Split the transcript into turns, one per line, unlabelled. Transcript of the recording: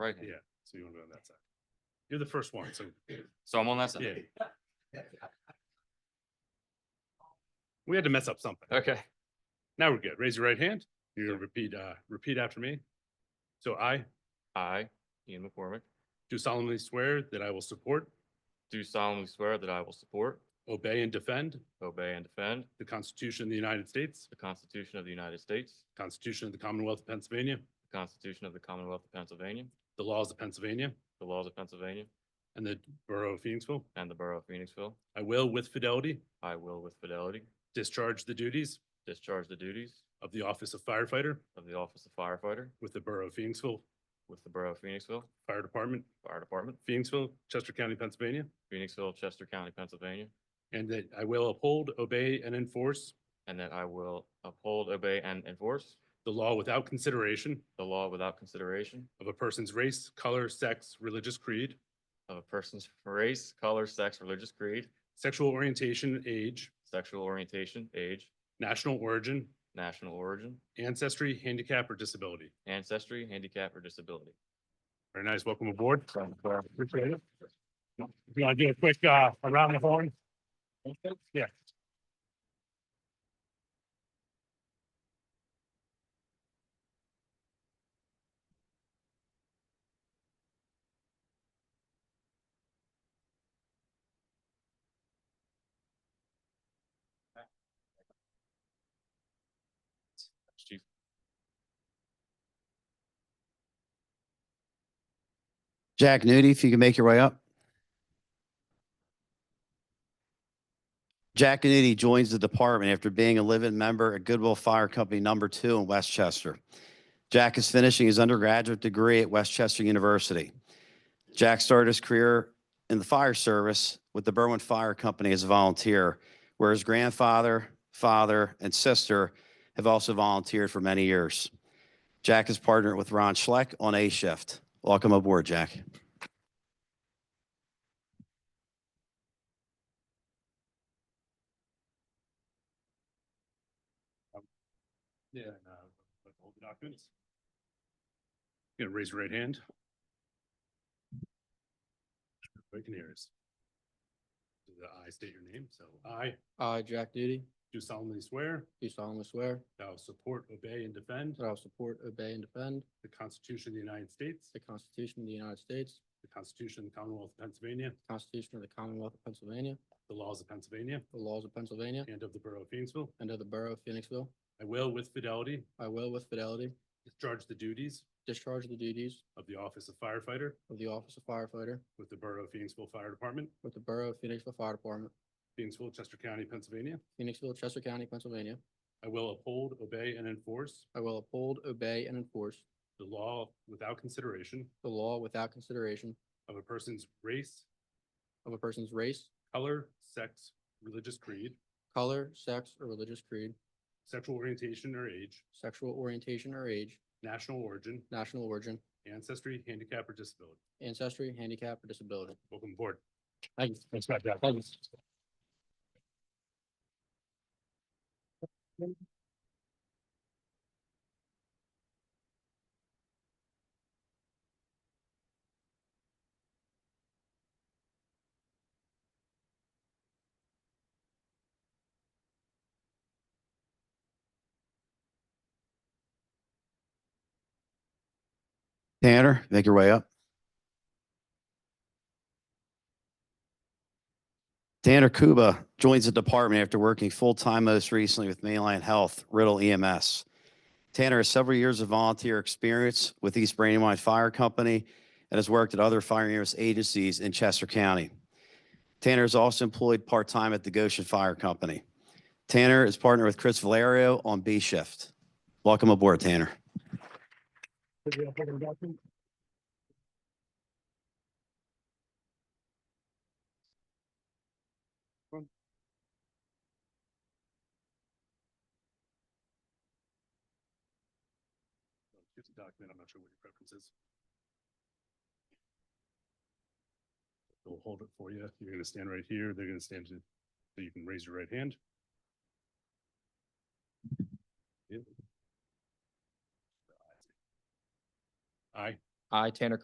right?
Yeah, so you wanna be on that side. You're the first one, so,
So I'm on that side.
yeah. We had to mess up something.
Okay.
Now we're good. Raise your right hand. You're gonna repeat, uh, repeat after me. So I
I, Ian McCormick,
do solemnly swear that I will support,
do solemnly swear that I will support,
obey, and defend
obey, and defend
the Constitution of the United States,
the Constitution of the United States,
Constitution of the Commonwealth of Pennsylvania,
the Constitution of the Commonwealth of Pennsylvania,
the laws of Pennsylvania,
the laws of Pennsylvania,
and the Borough of Phoenixville.
and the Borough of Phoenixville.
I will with fidelity
I will with fidelity
discharge the duties
discharge the duties
of the Office of Firefighter
of the Office of Firefighter
with the Borough of Phoenixville
with the Borough of Phoenixville
Fire Department,
Fire Department,
Phoenixville, Chester County, Pennsylvania,
Phoenixville, Chester County, Pennsylvania,
and that I will uphold, obey, and enforce
and that I will uphold, obey, and enforce
the law without consideration
the law without consideration
of a person's race, color, sex, religious creed,
of a person's race, color, sex, religious creed,
sexual orientation, age,
sexual orientation, age,
national origin,
national origin,
ancestry, handicap, or disability.
ancestry, handicap, or disability.
Very nice. Welcome aboard. Appreciate it. If you want to do a quick uh, around the horn? Yeah.
Chief.
Jack Nudie, if you can make your way up. Jack Nudie joins the department after being a live-in member at Goodwill Fire Company Number Two in Westchester. Jack is finishing his undergraduate degree at Westchester University. Jack started his career in the fire service with the Berwyn Fire Company as a volunteer, where his grandfather, father, and sister have also volunteered for many years. Jack is partnered with Ron Schleck on A Shift. Welcome aboard, Jack.
Yeah. and, uh, like all the documents. Gonna raise your right hand. Everybody can hear us. Do the I state your name, so I
I, Jack Duty,
do solemnly swear
do solemnly swear
that I will support, obey, and defend
that I will support, obey, and defend
the Constitution of the United States,
the Constitution of the United States,
the Constitution of the Commonwealth of Pennsylvania,
the Constitution of the Commonwealth of Pennsylvania,
the laws of Pennsylvania,
the laws of Pennsylvania,
and of the Borough of Phoenixville.
and of the Borough of Phoenixville.
I will with fidelity
I will with fidelity
discharge the duties
discharge the duties
of the Office of Firefighter
of the Office of Firefighter
with the Borough of Phoenixville Fire Department,
with the Borough of Phoenixville Fire Department,
Phoenixville, Chester County, Pennsylvania.
Phoenixville, Chester County, Pennsylvania.
I will uphold, obey, and enforce
I will uphold, obey, and enforce
the law without consideration
the law without consideration
of a person's race,
of a person's race,
color, sex, religious creed,
color, sex, or religious creed,
sexual orientation or age,
sexual orientation or age,
national origin,
national origin,
ancestry, handicap, or disability.
ancestry, handicap, or disability.
Welcome aboard.
Thank you.
Thanks, Matt. Jack.
Thank you.
Tanner, make your way up. Tanner Kuba joins the department after working full-time most recently with Mainline Health, Riddle EMS. Tanner has several years of volunteer experience with East Brandywine Fire Company and has worked at other fire service agencies in Chester County. Tanner is also employed part-time at the Goshen Fire Company. Tanner is partnered with Chris Valerio on B Shift. Welcome aboard, Tanner.
Here's a document, I'm not sure what your preference is. We'll hold it for you. You're gonna stand right here. They're gonna stand to, so you can raise your right hand. Yep. I
I, Tanner